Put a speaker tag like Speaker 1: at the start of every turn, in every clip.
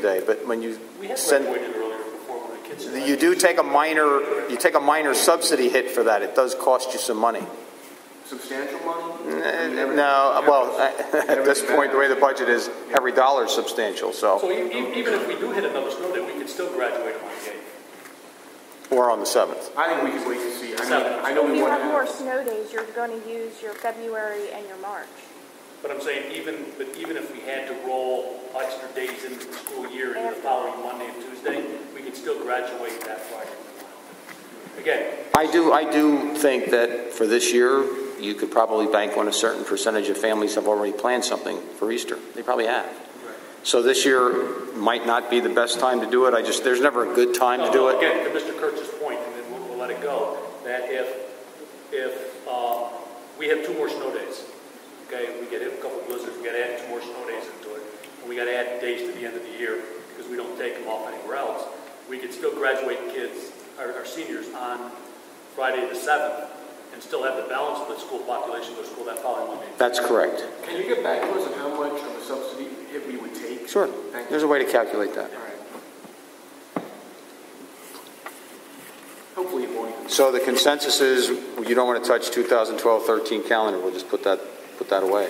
Speaker 1: day, but when you
Speaker 2: We had
Speaker 1: send,
Speaker 2: graduated earlier before when the kids.
Speaker 1: you do take a minor, you take a minor subsidy hit for that. It does cost you some money.
Speaker 3: Substantial money?
Speaker 1: No, well, at this point, the way the budget is, every dollar is substantial, so,
Speaker 2: So e- e- even if we do hit another snow day, we could still graduate on the eighth.
Speaker 1: or on the 7th.
Speaker 3: I think we can wait to see. I mean,
Speaker 2: Seven.
Speaker 3: I know
Speaker 4: If
Speaker 3: we
Speaker 4: you
Speaker 3: want
Speaker 4: have more
Speaker 3: to.
Speaker 4: snow days, you're going to use your February and your March.
Speaker 2: But I'm saying even, but even if we had to roll extra days into the school year into the following Monday and Tuesday, we could still graduate that Friday. Again,
Speaker 5: I do, I do think that for this year, you could probably bank on a certain percentage of families have already planned something for Easter. They probably have. So this year might not be the best time to do it. I just, there's never a good time to
Speaker 2: No,
Speaker 5: do
Speaker 2: no,
Speaker 5: it.
Speaker 2: Uh, Again, to Mr. Kurtz's point, and then we'll, we'll let it go, that if, if, um, we have two more snow days, okay, we get hit with a couple blizzards, we gotta add two more snow days into it, and we gotta add days to the end of the year, because we don't take them off anywhere else, we could still graduate kids, our, our seniors on Friday the seventh, and still have the balance of the school population go to school that following Monday.
Speaker 5: That's correct.
Speaker 3: Can you get back to us on how much of a subsidy if we would take?
Speaker 5: Sure.
Speaker 3: Thank
Speaker 5: There's
Speaker 3: you.
Speaker 5: a way to calculate that.
Speaker 3: All right. Hopefully it won't. even-
Speaker 1: So the consensus is, you don't want to touch 2012-13 calendar, we'll just put that, put that away.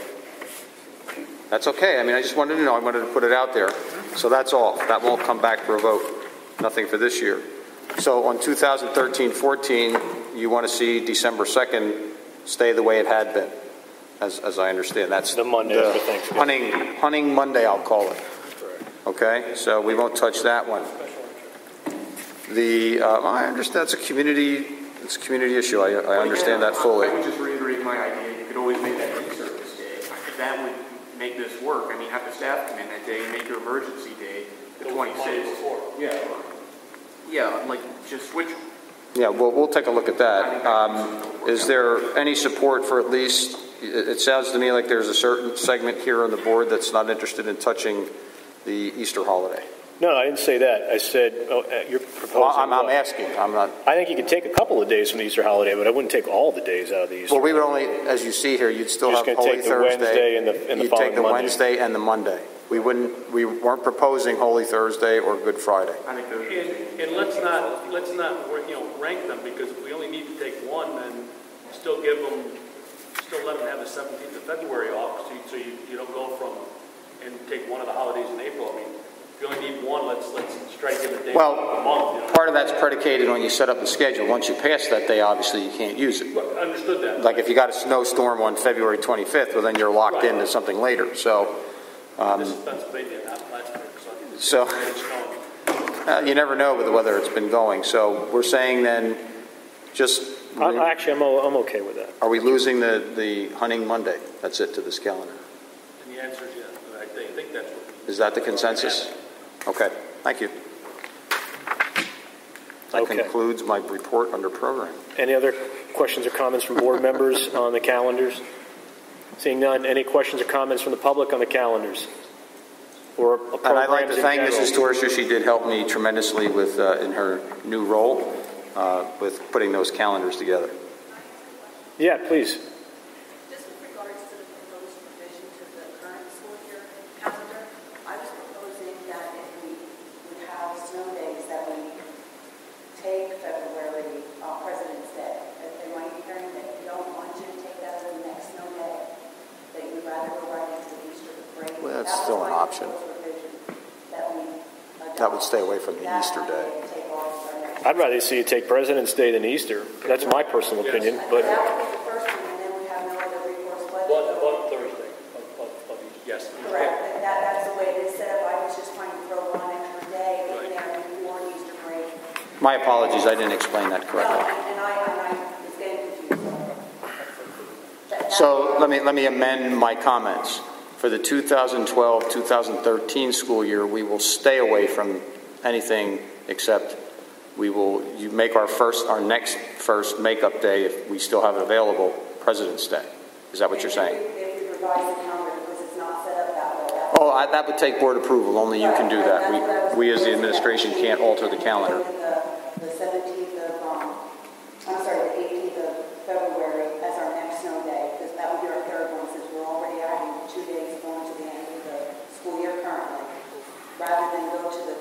Speaker 1: That's okay, I mean, I just wanted to know, I wanted to put it out there. So that's all, that won't come back for a vote, nothing for this year. So on 2013-14, you want to see December 2nd stay the way it had been, as, as I understand, that's.
Speaker 6: The Monday
Speaker 1: the
Speaker 6: after Thanksgiving.
Speaker 1: Hunting, hunting Monday, I'll call it. Okay, so we won't touch that one. The, uh, I understand, that's a community, it's a community issue, I, I understand that fully.
Speaker 3: I would just reiterate my idea, you could always make that day service day. If that would make this work, I mean, have the staff come in that day and make your emergency day the
Speaker 2: The Monday
Speaker 3: 26th.
Speaker 2: before.
Speaker 3: Yeah. Yeah, like, just switch.
Speaker 1: Yeah, well, we'll take a look at that. Um, Is there any support for at least, it it sounds to me like there's a certain segment here on the board that's not interested in touching the Easter holiday.
Speaker 6: No, I didn't say that. I said, oh, uh, you're proposing.
Speaker 1: Well, I'm, I'm
Speaker 6: what?
Speaker 1: asking, I'm not,
Speaker 6: I think you could take a couple of days from the Easter holiday, but I wouldn't take all the days out of the Easter.
Speaker 1: well, we would only, as you see here, you'd still
Speaker 6: You're
Speaker 1: have
Speaker 6: just
Speaker 1: Holy
Speaker 6: gonna
Speaker 1: Thursday.
Speaker 6: take the Wednesday and the- and the
Speaker 1: You'd take
Speaker 6: following
Speaker 1: the
Speaker 6: Monday.
Speaker 1: Wednesday and the Monday. We wouldn't, we weren't proposing Holy Thursday or Good Friday.
Speaker 3: I think those.
Speaker 2: And, and let's not, let's not, you know, rank them, because if we only need to take one, then still give them, still let them have the 17th of February off, so you, so you you don't go from, and take one of the holidays in April. I mean, if you only need one, let's, let's try to give a day, a
Speaker 1: Well,
Speaker 2: month,
Speaker 5: Part of that's predicated on you set up the schedule. Once you pass that day, obviously, you can't use it.
Speaker 2: you know. Understood that.
Speaker 1: Like if you got a snowstorm on February 25th, well, then you're locked into something later. So
Speaker 2: This is Pennsylvania, not Plattsburgh, so.
Speaker 1: So-
Speaker 2: I think it's snowing.
Speaker 1: uh, you never know with the weather it's been going. So we're saying then, just,
Speaker 6: I'm, Uh, actually, I'm, o- I'm okay with that.
Speaker 1: are we losing the, the hunting Monday? That's it to this calendar.
Speaker 2: And the answer is yes, but I think, I think that's what.
Speaker 1: Is that the consensus? Okay, thank you. That
Speaker 6: Okay.
Speaker 1: concludes my report under program.
Speaker 6: Any other questions or comments from board members on the calendars? Seeing none, any questions or comments from the public on the calendars? Or programs
Speaker 1: And I'd like to
Speaker 6: in
Speaker 1: thank
Speaker 6: general?
Speaker 1: Mrs. Torres, she did help me tremendously with, uh, in her new role, uh, with putting those calendars together.
Speaker 6: Yeah, please.
Speaker 7: Just with regards to the proposed revision to the current school year calendar, I was proposing that if we would have snow days, that we take February, uh, President's Day, that they might be hearing that you don't want you to take that as the next snow day, that you'd rather go right into the Easter break.
Speaker 1: Well, that's
Speaker 7: That was
Speaker 1: still an
Speaker 7: my
Speaker 1: option.
Speaker 7: proposed revision That we.
Speaker 1: That would stay
Speaker 7: adopt.
Speaker 1: away from the
Speaker 7: That
Speaker 1: Easter
Speaker 7: might
Speaker 1: day.
Speaker 7: Take off our next.
Speaker 6: I'd rather see you take President's Day than Easter. That's my personal opinion,
Speaker 7: That would be
Speaker 6: but
Speaker 7: the first one, and then we have no other recourse but.
Speaker 2: One, one Thursday of, of, of each, yes.
Speaker 7: Correct, and that, that's the way it is set up, I was just trying to throw one extra day in there before Easter break.
Speaker 5: My apologies, I didn't explain that
Speaker 7: No,
Speaker 5: correctly.
Speaker 7: and I, and I was getting confused. That- that-
Speaker 5: So let me, let me amend my comments. For the 2012-2013 school year, we will stay away from anything except we will, you make our first, our next first makeup day, if we still have it available, President's Day. Is that what you're saying?
Speaker 7: If you revise the calendar, because it's not set up that way. That's-
Speaker 5: Oh, I, that would take board approval, only you can do
Speaker 7: Right, right, that's
Speaker 5: that.
Speaker 7: what I
Speaker 5: We, we
Speaker 7: was
Speaker 5: as the
Speaker 7: thinking, that
Speaker 5: administration
Speaker 7: we
Speaker 5: can't alter the
Speaker 7: can
Speaker 5: calendar.
Speaker 7: do The the seventeenth of, um, I'm sorry, the eighteenth of February as our next snow day, because that would be our third one, since we're already adding two days going to the end of the school year currently. Rather than go go to the